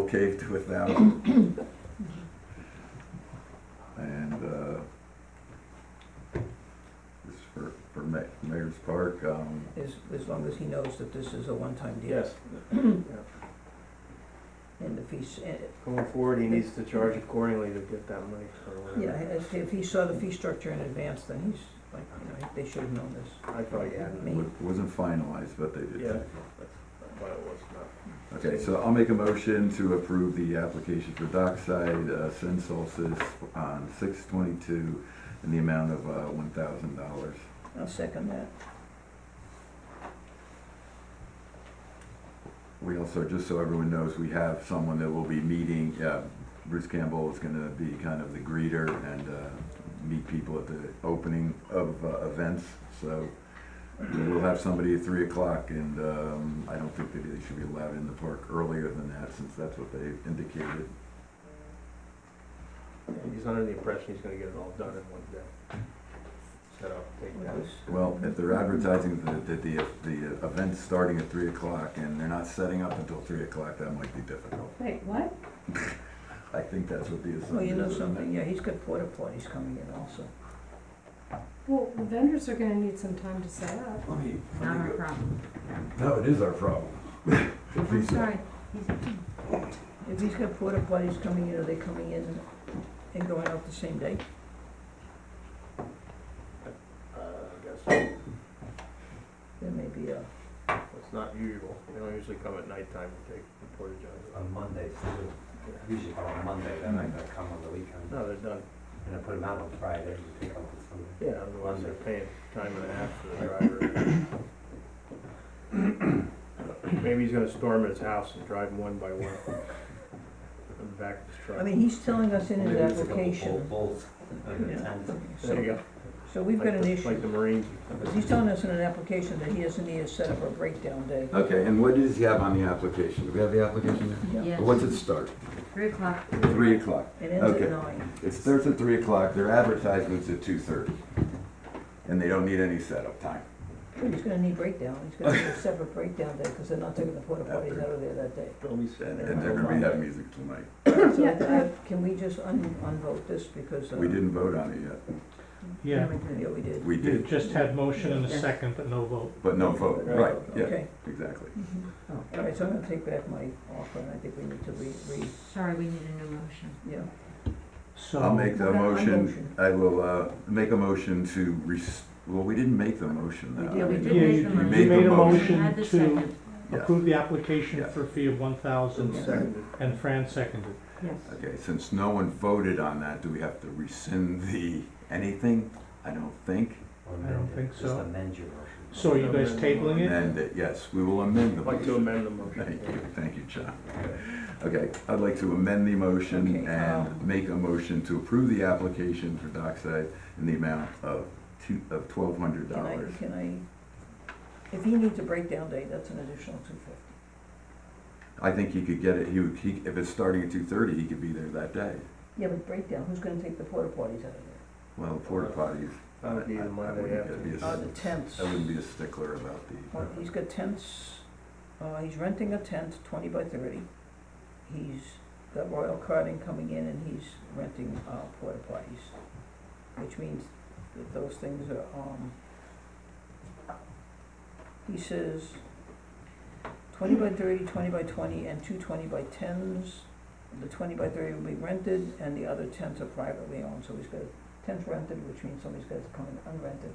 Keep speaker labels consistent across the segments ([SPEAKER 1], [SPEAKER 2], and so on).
[SPEAKER 1] okay with them. And, uh, this is for, for Ma- Mayor's Park, um,
[SPEAKER 2] As, as long as he knows that this is a one-time deal.
[SPEAKER 3] Yes,
[SPEAKER 2] And if he's, eh,
[SPEAKER 3] going forward, he needs to charge accordingly to get that money or whatever.
[SPEAKER 2] yeah, eh, if- if he saw the fee structure in advance, then he's like, you know, they should have known this.
[SPEAKER 3] I thought he had, it.
[SPEAKER 2] Me.
[SPEAKER 1] wa- wasn't finalized, but they did.
[SPEAKER 3] yeah, that's, I thought it was not.
[SPEAKER 1] Okay, so I'll make a motion to approve the application for Dockside uh, Sun Solstice on six twenty-two in the amount of, uh, one thousand dollars.
[SPEAKER 2] I'll second that.
[SPEAKER 1] We also, just so everyone knows, we have someone that will be meeting, uh, Bruce Campbell is gonna be kind of the greeter and, uh, meet people at the opening of, uh, events, so we'll have somebody at three o'clock, and, um, I don't think that they should be allowed in the park earlier than that, since that's what they indicated.
[SPEAKER 3] He's under the impression he's gonna get it all done in one day. Set up, take
[SPEAKER 2] It
[SPEAKER 3] down.
[SPEAKER 2] was-
[SPEAKER 1] Well, if they're advertising that, that the, the event's starting at three o'clock, and they're not setting up until three o'clock, that might be difficult.
[SPEAKER 4] Wait, what?
[SPEAKER 1] I think that's what the assumption is.
[SPEAKER 2] Well, you know
[SPEAKER 1] isn't it?
[SPEAKER 2] something, yeah, he's got porta potties coming in also.
[SPEAKER 4] Well, the vendors are gonna need some time to set up.
[SPEAKER 1] Let me- let me
[SPEAKER 4] Not our
[SPEAKER 1] go-
[SPEAKER 4] problem.
[SPEAKER 1] No, it is our problem.
[SPEAKER 4] I'm sorry.
[SPEAKER 2] If he's got porta potties coming in, are they coming in and going out the same day?
[SPEAKER 3] Uh, I guess,
[SPEAKER 2] There may be a,
[SPEAKER 3] it's not usual, they don't usually come at nighttime to take the porta johns.
[SPEAKER 5] On Mondays too. Usually come on Monday, then I gotta come on the weekend.
[SPEAKER 3] No, they're done,
[SPEAKER 5] And I put them out on Friday and pick up on Sunday.
[SPEAKER 3] yeah, otherwise they're paying time and a half for the driver. Maybe he's gonna storm his house and drive them one by one. And back his truck.
[SPEAKER 2] I mean, he's telling us in his
[SPEAKER 5] Maybe it's a couple
[SPEAKER 2] application,
[SPEAKER 5] bull- Bulls, under
[SPEAKER 2] Yeah.
[SPEAKER 5] tent.
[SPEAKER 3] There you
[SPEAKER 2] so,
[SPEAKER 3] go.
[SPEAKER 2] so we've got
[SPEAKER 3] Like
[SPEAKER 2] an
[SPEAKER 3] the-
[SPEAKER 2] issue.
[SPEAKER 3] Like the Marines.
[SPEAKER 2] He's telling us in an application that he doesn't need to set up a breakdown day.
[SPEAKER 1] Okay, and what does he have on the application? Do we have the application there?
[SPEAKER 2] Yeah.
[SPEAKER 1] What's it start?
[SPEAKER 4] Three o'clock.
[SPEAKER 1] Three o'clock.
[SPEAKER 2] It ends
[SPEAKER 1] Okay.
[SPEAKER 2] at nine.
[SPEAKER 1] It starts at three o'clock, their advertisement's at two thirty. And they don't need any setup time.
[SPEAKER 2] Well, He's gonna need breakdown, he's gonna need a separate breakdown day, because they're not taking the porta potties out of there that day.
[SPEAKER 3] They'll be
[SPEAKER 1] And,
[SPEAKER 3] sitting there.
[SPEAKER 1] and they're gonna be having music tonight.
[SPEAKER 2] So,
[SPEAKER 4] Yeah,
[SPEAKER 2] uh, can we just un, unvote this, because. uh,
[SPEAKER 1] We didn't vote on it yet.
[SPEAKER 6] Yeah,
[SPEAKER 2] Yeah, we did.
[SPEAKER 1] We
[SPEAKER 6] you
[SPEAKER 1] did,
[SPEAKER 6] just had motion and
[SPEAKER 4] Yeah.
[SPEAKER 6] a second, but no vote.
[SPEAKER 1] but no vote, right, yeah,
[SPEAKER 2] Okay,
[SPEAKER 1] exactly.
[SPEAKER 4] Mm-hmm.
[SPEAKER 3] Oh.
[SPEAKER 2] all right, so I'm gonna take back my offer, and I think we need to re, re,
[SPEAKER 4] Sorry, we need a new motion.
[SPEAKER 2] yeah.
[SPEAKER 6] So.
[SPEAKER 1] I'll make the
[SPEAKER 2] Okay, I'll
[SPEAKER 1] motion,
[SPEAKER 2] motion.
[SPEAKER 1] I will, uh, make a motion to res, well, we didn't make the motion
[SPEAKER 2] We
[SPEAKER 1] though.
[SPEAKER 2] did, we
[SPEAKER 6] Yeah,
[SPEAKER 2] did
[SPEAKER 6] you-
[SPEAKER 4] make the
[SPEAKER 6] you
[SPEAKER 1] You
[SPEAKER 4] motion.
[SPEAKER 1] made
[SPEAKER 6] made a
[SPEAKER 1] the motion.
[SPEAKER 6] motion
[SPEAKER 4] Add the
[SPEAKER 6] to
[SPEAKER 4] second.
[SPEAKER 1] Yeah.
[SPEAKER 6] approve the
[SPEAKER 1] Yeah.
[SPEAKER 6] application for a fee of one thousand,
[SPEAKER 3] Seconded.
[SPEAKER 6] and Fran seconded.
[SPEAKER 4] Yes.
[SPEAKER 1] Okay, since no one voted on that, do we have to rescind the, anything? I don't think.
[SPEAKER 5] Or
[SPEAKER 6] I don't
[SPEAKER 5] amend it,
[SPEAKER 6] think
[SPEAKER 5] Just
[SPEAKER 6] so.
[SPEAKER 5] amend your motion.
[SPEAKER 6] So are you guys tabling it?
[SPEAKER 1] Amend it, yes, we will amend the
[SPEAKER 3] I'd like to
[SPEAKER 1] motion.
[SPEAKER 3] amend the
[SPEAKER 1] Thank you,
[SPEAKER 3] motion.
[SPEAKER 1] thank you, John. Okay, I'd like to amend the motion
[SPEAKER 2] Okay,
[SPEAKER 1] and
[SPEAKER 2] um,
[SPEAKER 1] make a motion to approve the application for Dockside in the amount of two, of twelve hundred
[SPEAKER 2] Can I,
[SPEAKER 1] dollars.
[SPEAKER 2] can I, if he needs a breakdown day, that's an additional two fifty.
[SPEAKER 1] I think he could get it, he would, he, if it's starting at two thirty, he could be there that day.
[SPEAKER 2] Yeah, but breakdown, who's gonna take the porta potties out of there?
[SPEAKER 1] Well, porta potties,
[SPEAKER 3] That would be
[SPEAKER 1] I- I-
[SPEAKER 3] the
[SPEAKER 1] I
[SPEAKER 3] Monday
[SPEAKER 1] wouldn't- that'd be
[SPEAKER 3] after.
[SPEAKER 1] a-
[SPEAKER 2] Uh, the tents.
[SPEAKER 1] I wouldn't be a stickler about the,
[SPEAKER 2] Well, he's got tents, uh, he's renting a tent, twenty by thirty. He's got Royal Carting coming in and he's renting, uh, porta potties, which means that those things are, um, he says twenty by thirty, twenty by twenty, and two twenty by tens. The twenty by thirty will be rented and the other tents are privately owned, so he's got tents rented, which means somebody's got to come in unrented,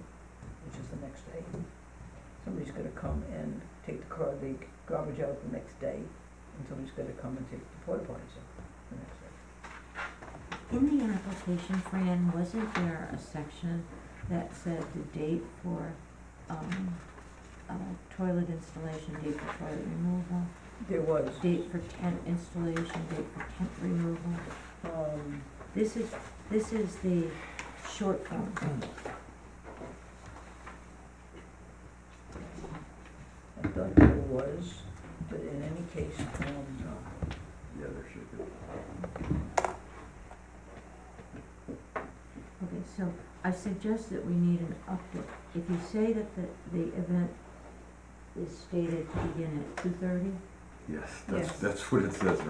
[SPEAKER 2] which is the next day somebody's gonna come and take the car, the garbage out the next day, and somebody's gonna come and take the porta potties out the next day.
[SPEAKER 4] In the application, Fran, wasn't there a section that said the date for, um, uh, toilet installation, date for toilet removal,
[SPEAKER 2] There was,
[SPEAKER 4] date for tent installation, date for tent removal?
[SPEAKER 2] um,
[SPEAKER 4] This is, this is the short form.
[SPEAKER 2] I thought there was, but in any case, um,
[SPEAKER 1] yeah, there should be.
[SPEAKER 4] Okay, so I suggest that we need an update. If you say that the, the event is stated to begin at two thirty,
[SPEAKER 1] Yes, that's,
[SPEAKER 4] Yes.
[SPEAKER 1] that's what it says right